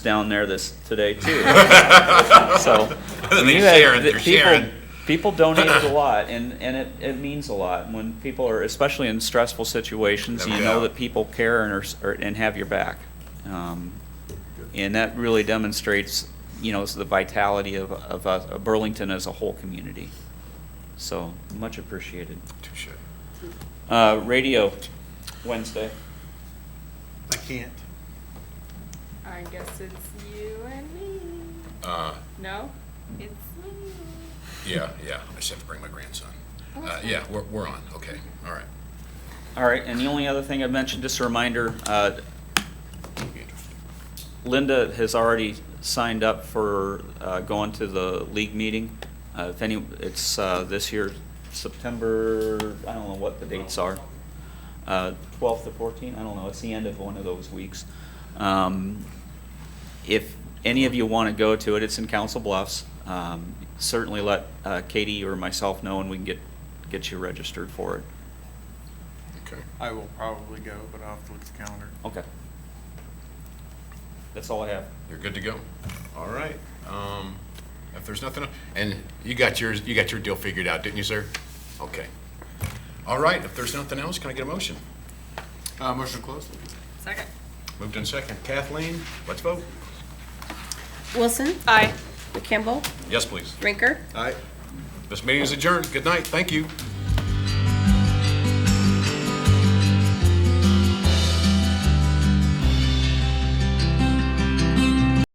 down there this, today too. So. I mean, you had- Sharon, the they're people- Sharon. People donated a lot, and, and it, it means a lot. When people are, especially in stressful situations, No you know doubt. that people care and are, s- are- and have your back. Um, And that really demonstrates, you know, the vitality of, of us- of Burlington as a whole community. So, much appreciated. Touche. Uh, radio, Wednesday. I can't. I guess it's you and me. Uh, No, it's me. yeah, yeah, I just have to bring my grandson. Oh, Uh, that's yeah, fine. we're, we're on, okay, all right. All right, and the only other thing I mentioned, just a reminder, uh, Linda has already signed up for uh, going to the league meeting. Uh, If any, it's uh, this year, September, I don't know what the dates are. Uh, 12th to 14th, I don't know, it's the end of one of those weeks. Um, If any of you want to go to it, it's in Council Bluffs. Um, Certainly let uh, Katie or myself know and we can get, get you registered for it. Okay. I will probably go, but I'll have to look at the calendar. Okay. That's all I have. You're good to go. All right. Um, if there's nothing, and you got yours, you got your deal figured out, didn't you, sir? Okay. All right, if there's nothing else, can I get a motion? Uh, motion closed? Second. Moved in second. Kathleen, let's vote. Wilson, Aye. McCampbell, Yes, please. Rinker. Aye. This meeting is adjourned. Good night. Thank you.